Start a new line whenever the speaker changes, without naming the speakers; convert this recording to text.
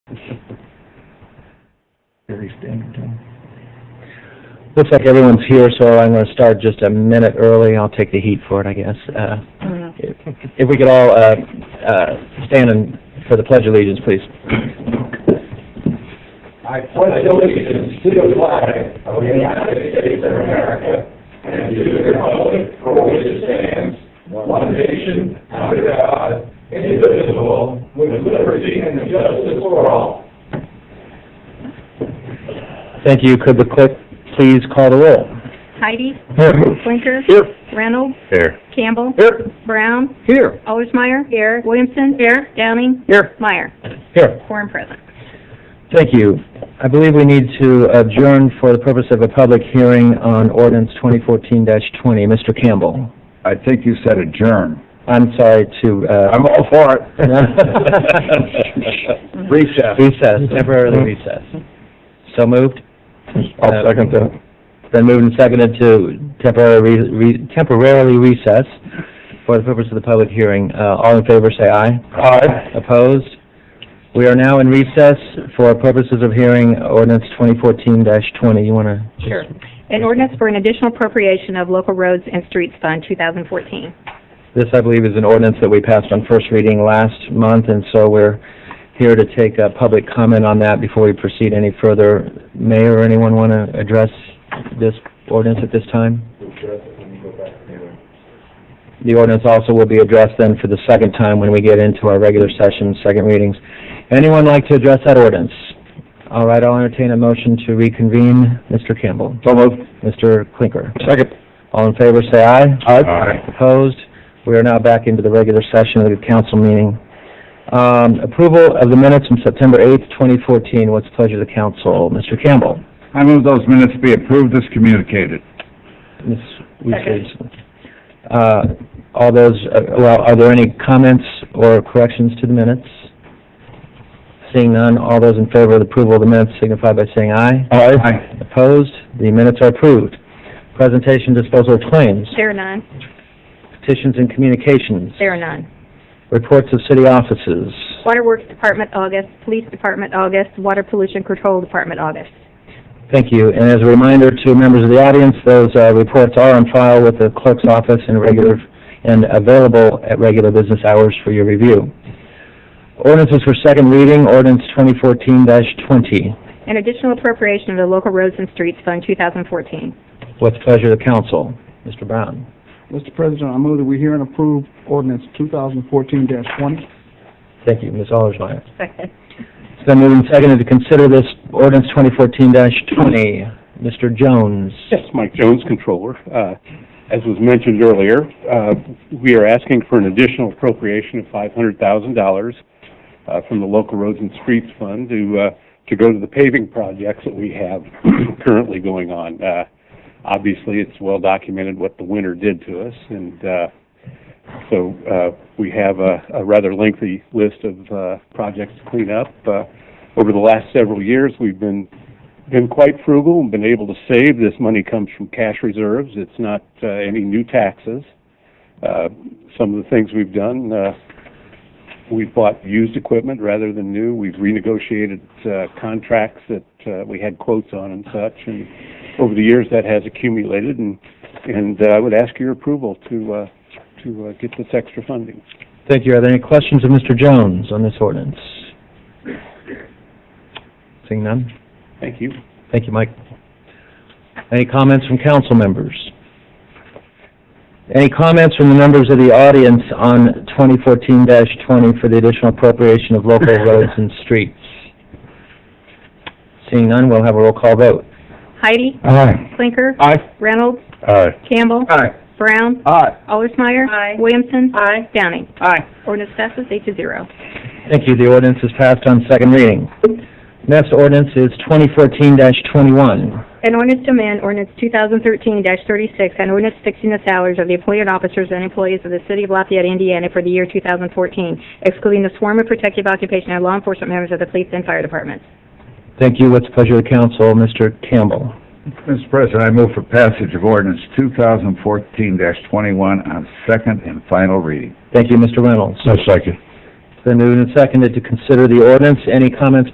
Fairly standard time.
Looks like everyone's here, so I'm gonna start just a minute early. I'll take the heat for it, I guess. Uh, if- If we could all, uh, uh, stand and, for the pledge of allegiance, please.
I pledge allegiance to the flag of the United States of America and to the republic for which it stands, one nation, under God, indivisible, with liberty and justice for all.
Thank you. Could the clerk please call the roll?
Heidi, Blinker,
Here.
Reynolds,
Here.
Campbell,
Here.
Brown,
Here.
Allersmeyer. Here. Williamson. Here. Downing,
Here.
Meyer.
Here.
Quorum present.
Thank you. I believe we need to adjourn for the purpose of a public hearing on ordinance 2014-20. Mr. Campbell,
I think you said adjourn.
I'm sorry to, uh...
all for
Recess. Recess, temporarily recess. So moved?
Mm-hmm. I'll second that.
Then moved and seconded to temporarily, re- re- temporarily recess for the purpose of the public hearing. Uh, all in favor, say aye.
Aye.
Opposed? We are now in recess for purposes of hearing ordinance twenty fourteen twenty. You wanna?
Sure. An ordinance for an additional appropriation of local roads and streets fund 2014.
This, I believe, is an ordinance that we passed on first reading last month, and so we're here to take a public comment on that before we proceed any further. Mayor, or anyone want to address this ordinance at this time? The ordinance also will be addressed then for the second time when we get into our regular session, second readings. Anyone like to address that ordinance? All right, I'll entertain a motion to reconvene. Mr. Campbell.
So moved.
Mr. Clinker.
Second.
All in favor, say aye.
Aye.
Opposed? We are now back into the regular session of the council meeting. Um, Approval of the minutes from September 8th, 2014. What's the pleasure of the council? Mr. Campbell?
I move those minutes be approved as communicated.
Ms. Weesley? Uh, All those, uh, well, are there any comments or corrections to the minutes? Seeing none, all those in favor of the approval of the minutes signify by saying aye.
Aye.
Opposed? The minutes are approved. Presentation disposal of claims,
There are none.
petitions and communications,
There are none.
reports of city offices,
Water Works Department, August. Police Department, August. Water Pollution Control Department, August.
Thank you. And as a reminder to members of the audience, those uh, reports are on file with the clerk's office and regular, and available at regular business hours for your review. Ordinances for second reading, ordinance 2014-20.
An additional appropriation of the local roads and streets fund 2014.
What's the pleasure of the council? Mr. Brown?
Mr. President, I move that we hear and approve ordinance 2014-20.
Thank you. Ms. Allersmeyer?
Second.
It's been moved and seconded to consider this ordinance 2014-20. Mr. Jones?
Yes, Mike Jones, Controller. Uh, As was mentioned earlier, uh, we are asking for an additional appropriation of $500,000 uh, from the Local Roads and Streets Fund to, uh, to go to the paving projects that we have currently going on. Uh, Obviously, it's well documented what the winter did to us, and uh, so uh, we have a a rather lengthy list of uh, projects to clean up. Uh, Over the last several years, we've been been quite frugal and been able to save. This money comes from cash reserves. It's not uh, any new taxes. Uh, some of the things we've done, uh, we've bought used equipment rather than new. We've renegotiated uh, contracts that uh, we had quotes on and such. And over the years, that has accumulated. And and uh, I would ask your approval to uh, to uh, get this extra funding.
Thank you. Are there any questions of Mr. Jones on this ordinance? Seeing none?
Thank you.
Thank you, Mike. Any comments from council members? Any comments from the members of the audience on 2014-20 for the additional appropriation of local roads and streets? Seeing none, we'll have a roll call vote.
Heidi,
Aye.
Blinker,
Aye.
Reynolds,
Aye.
Campbell,
Aye.
Brown,
Aye.
Allersmeyer. Williamson. Downing.
Aye.
Ordinance passes eight to zero.
Thank you, the ordinance is passed on second reading. Next ordinance is 2014-21.
An ordinance to amend ordinance 2013-36 and ordinance fixing the salaries of the appointed officers and employees of the city of Lafayette, Indiana for the year 2014, excluding the sworn and protective occupation and law enforcement members of the police and fire departments.
Thank you, what's the pleasure of the council, Mr. Campbell?
Mr. President, I move for passage of ordinance 2014-21 on second and final reading.
Thank you, Mr. Reynolds.
second.
It's been moved and seconded to consider the ordinance, any comments